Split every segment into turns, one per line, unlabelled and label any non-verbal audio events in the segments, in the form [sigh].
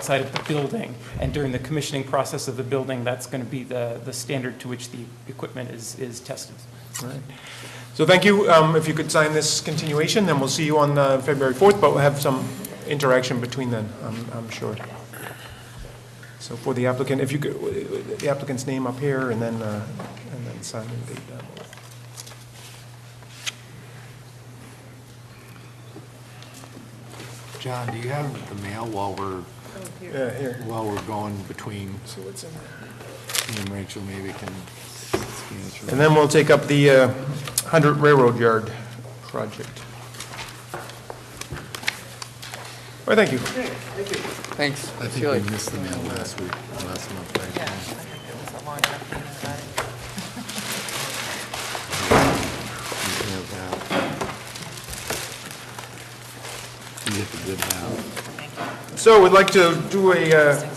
outside of the building, and during the commissioning process of the building, that's going to be the, the standard to which the equipment is, is tested.
Right. So thank you. Um, If you could sign this continuation, then we'll see you on uh, February 4th, but we'll have some interaction between then, I'm I'm sure. So for the applicant, if you could, uh, the applicant's name up here and then, uh, and then sign and date that.
John, do you have the mail while we're,
Yeah, here.
while we're going between,
So what's in there?
me and Rachel maybe can scan through?
And then we'll take up the uh, 100 Railroad Yard project. All right, thank you.
Thanks.
I
See you
think
later.
we missed the mail last week, last month, right?
Yeah, I think it was a long enough.
You have that. You get the good mail.
So we'd like to do a, uh,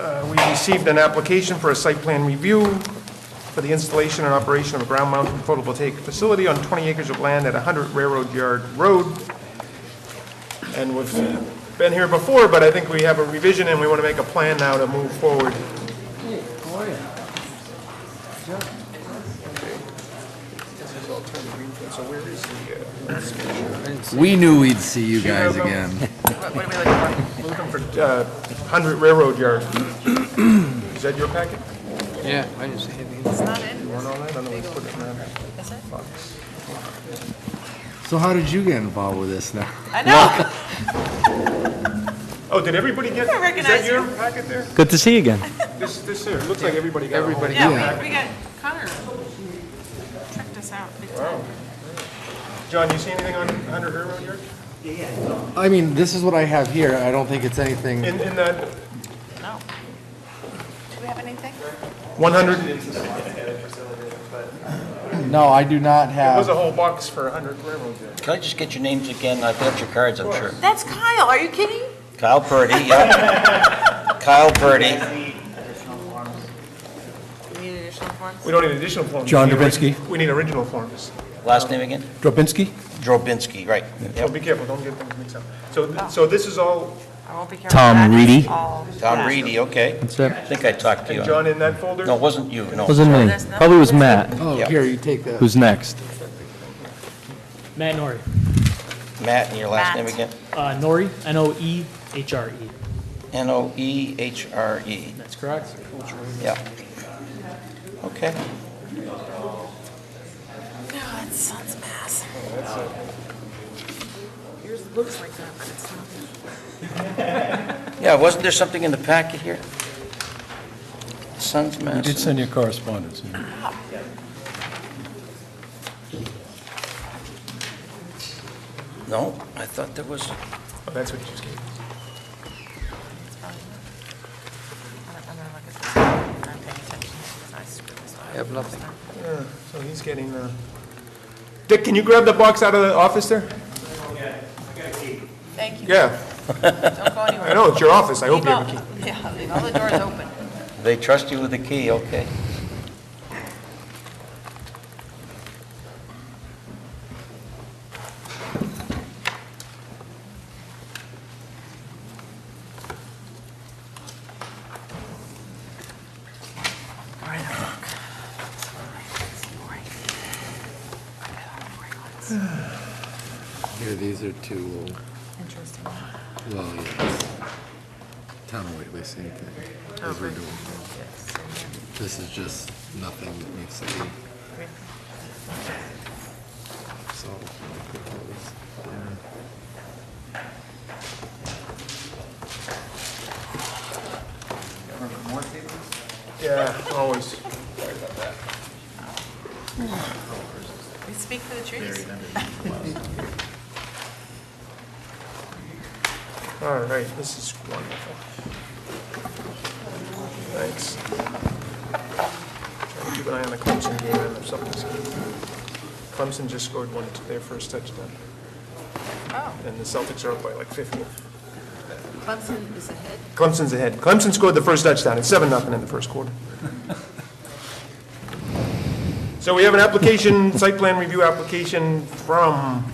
uh, we received an application for a site plan review for the installation and operation of a ground-mounted photovoltaic facility on 20 acres of land at 100 Railroad Yard Road. And we've been here before, but I think we have a revision and we want to make a plan now to move forward.
We knew we'd see you guys
Sure, bro.
again.
What what are we looking for?
We're Looking for uh, 100 Railroad Yard. Is that your packet?
Yeah, I just hit
It's not in,
Want all that? Otherwise, put it in that
is it?
box.
So how did you get involved with this now?
I know,
Oh, did everybody get,
I
is that
recognize
your
you.
packet there?
Good to see you again.
This, this here, looks like everybody got a hold of it.
yeah, we, we got Connor tricked us out big time.
John, you see anything on 100 Railroad Yard?
I mean, this is what I have here. I don't think it's anything.
In, in that
No. Do we have anything?
100, it
'Cause- No, I do not
was a
have.
whole box for 100 Railroad Yard.
Can I just get your names again? I've got your cards, I'm sure.
That's Kyle, are you kidding?
Kyle Purdy,
[laughs]
yeah. Kyle Purdy.
We need additional forms?
We don't need additional forms.
John
We need ori-
Dubinsky.
We need original forms.
Last name again?
Drobinski?
Drobinski, right.
So
Yep.
be careful, don't get things mixed up. So, th- so this is all,
I won't be careful.
Tom
That is
Reedy.
all-
Tom
yeah.
Reedy, okay.
That's it.
I think I talked to
and
you.
John in that folder?
No, it wasn't you, no.
Wasn't me. Probably was Matt,
Oh,
Yeah.
here, you take that.
who's next.
Matt Nori,
Matt, and your last name
Matt.
again?
uh, Nori, E N-O-E-H-R-E,
E N-O-E-H-R-E,
that's correct?
E, yeah. Okay.
God, son's mass. Yours looks like that, but it's not.
Yeah, wasn't there something in the packet here? Sons Mass.
did send you correspondence.
No, I thought there was,
Oh, That's what you just gave.
It's fine. I'm gonna- I'm gonna look at this. I'm not paying attention. I screwed this up.
I have nothing.
Yeah, so he's getting the, Dick, can you grab the box out of the office there?
Thank you.
Yeah,
Don't go anywhere.
I know, it's your office, I hope you have a key.
key. Yeah, leave all the
[laughs]
doors open.
they trust you with the key, okay.
All right, I'll look. It's boring. I got all the boring ones.
Here, these are two,
Interesting.
well, yes. Town of Whately, same thing, as we're doing.
Yes, and then-
This is just nothing that needs to be, so.
Yeah, always.
We speak for the trees.
All right, this is wonderful. Thanks. Trying to Keep an eye on the Clemson game and if something's. Clemson just scored one, their first touchdown,
Oh,
and the Celtics are up by like 50.
Clemson is ahead.
Clemson's ahead. Clemson scored the first touchdown. It's 7 nothing in the first quarter. So we have an application, site plan review application from